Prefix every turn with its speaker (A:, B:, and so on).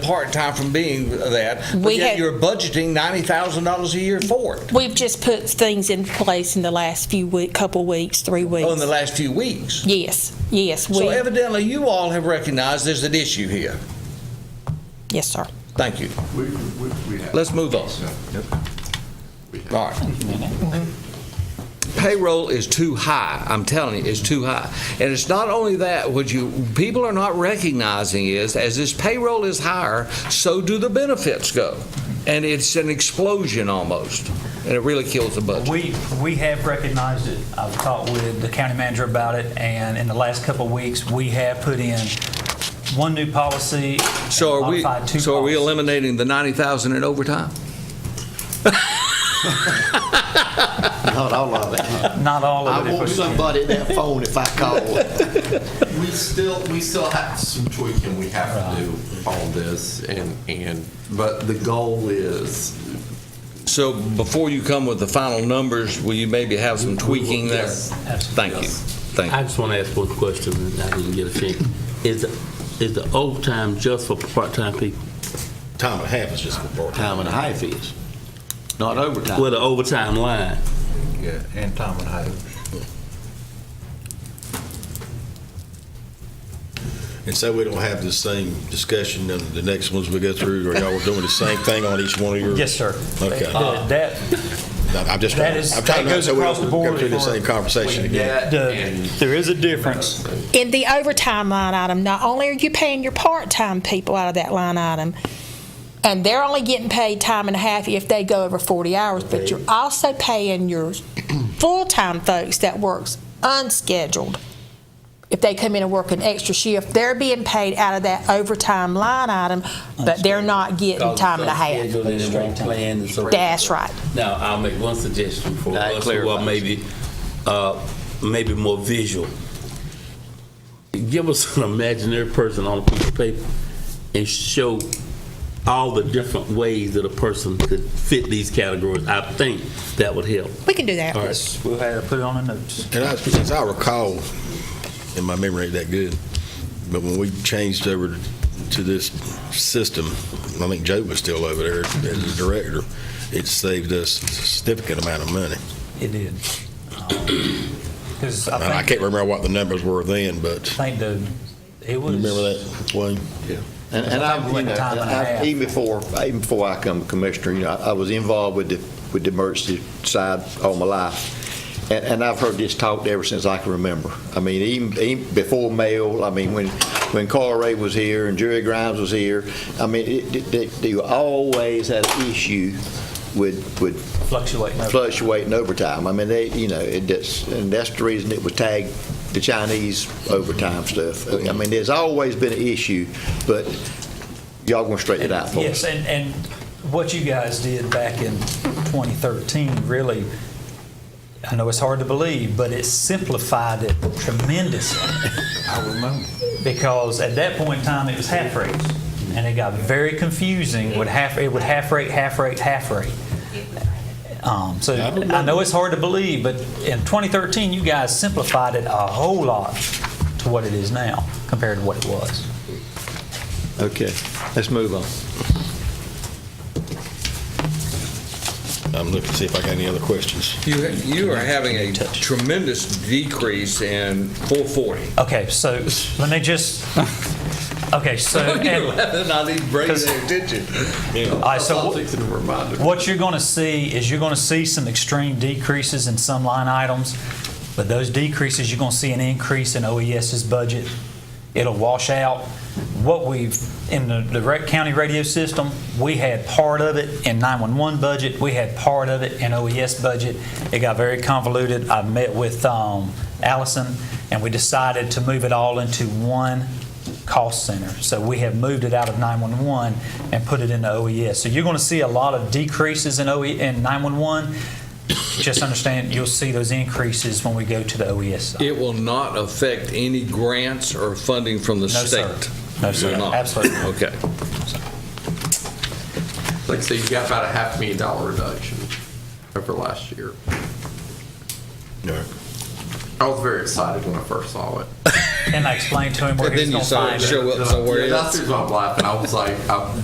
A: part-time from being that, but
B: We
A: yet
B: had-
A: you're budgeting $90,000 a year for it,
B: We've just put things in place in the last few week, couple weeks, three weeks.
A: on Oh, the last few weeks.
B: yes, yes, we,
A: So evidently, you all have recognized there's an issue here.
B: yes, sir.
A: Thank you.
C: We, we, we have.
A: Let's move on. All right. Payroll is too high. I'm telling you, it's too high. And it's not only that, what you, people are not recognizing is, as this payroll is higher, so do the benefits go. And it's an explosion almost, and it really kills the budget.
D: We, we have recognized it. I've talked with the county manager about it, and in the last couple of weeks, we have put in one new policy.
A: So are we,
D: modified two
A: so are we
D: policies.
A: eliminating the 90,000 in overtime?
E: Not all of it.
D: Not all of it.
E: I
D: if
E: want
D: we can.
E: somebody at that phone if I call.
C: We still, we still have some tweaking we have to do on this and, and, but the goal is.
A: So before you come with the final numbers, will you maybe have some tweaking there?
C: Yes,
A: Thank you.
C: yes.
A: Thank
F: I
A: you.
F: just want to ask one question, and I didn't get a chance. Is, is the overtime just for part-time people?
E: Time and a half is just before. Time and a half is, not overtime.
F: With the overtime line?
C: Yeah, and Tom and I.
G: And so we don't have the same discussion in the next ones we go through, or y'all are doing the same thing on each one of your?
D: Yes, sir.
G: Okay.
D: Uh, That,
G: I'm just
D: that
G: trying,
D: is,
G: I'm
D: that
G: trying to,
D: goes
G: so we
D: across the
G: don't
D: board.
G: go through the
D: for-
G: same conversation again.
C: Yeah,
D: the- There is a difference.
B: In the overtime line item, not only are you paying your part-time people out of that line item, and they're only getting paid time and a half if they go over 40 hours, but you're also paying your full-time folks that works unscheduled. If they come in and work an extra shift, they're being paid out of that overtime line item, but they're not getting time and a half.
F: Scheduled and it won't plan and so-
B: That's right.
F: Now, I'll make one suggestion for
E: That
F: us, who are
E: clarifies.
F: maybe, uh, maybe more visual. Give us an imaginary person on a piece of paper and show all the different ways that a person could fit these categories. I think that would help.
B: We can do that.
D: Yes, we'll have to put it on the notes.
G: And I, since I recall, and my memory ain't that good, but when we changed over to this system, I think Joe was still over there as the director, it saved us a significant amount of money.
D: It did. Because
G: And I
D: I think,
G: can't remember what the numbers were then, but
D: I think the, it was.
G: you remember that, Wayne?
E: And, and I, you know,
D: Time and a half.
E: I- even before, even before I come commissioner, you know, I I was involved with the, with the emergency side all my life. And, and I've heard this talked ever since I can remember. I mean, even, even before Mel, I mean, when, when Carl Ray was here and Jerry Grimes was here, I mean, it, it- they, they always had an issue with, with
D: Fluctuating.
E: fluctuating overtime. I mean, they, you know, it that's and that's the reason it was tagged the Chinese overtime stuff. I mean, there's always been an issue, but y'all gonna straighten it out for
D: Yes,
E: us.
D: and, and what you guys did back in 2013, really, I know it's hard to believe, but it simplified it tremendously. I remember. Because at that point in time, it was half rates, and it got very confusing with half, it would half rate, half rate, half rate. Um, So I know it's hard to believe, but in 2013, you guys simplified it a whole lot to what it is now compared to what it was.
E: Okay, let's move on.
G: I'm looking to see if I got any other questions.
A: You, you are having a tremendous decrease in 440.
D: Okay, so let me just, okay, so, and-
A: I need to bring
D: Because-
A: their attention.
D: all right, so
C: I'll fix it and remind her.
D: what you're going to see is you're going to see some extreme decreases in some line items, but those decreases, you're going to see an increase in OES's budget. It'll wash out. What we've, in the, the rec- county radio system, we had part of it in 911 budget, we had part of it in OES budget. It got very convoluted. I met with um, Allison, and we decided to move it all into one cost center. So we have moved it out of 911 and put it into OES. So you're going to see a lot of decreases in OE, in 911. Just understand, you'll see those increases when we go to the OES side.
A: It will not affect any grants or funding from the
D: No,
A: state?
D: sir. No, sir.
A: Will not?
D: Absolutely.
A: Okay.
C: Like I said, you got about a half million dollar reduction over last year.
G: All right.
C: I was very excited when I first saw it.
H: and I explained to him where
D: And
H: he was
D: then you
H: going to
D: saw
H: find
D: it
H: it.
D: show up somewhere
C: Yeah,
D: else.
C: that's the reason why I'm laughing. I was like, I,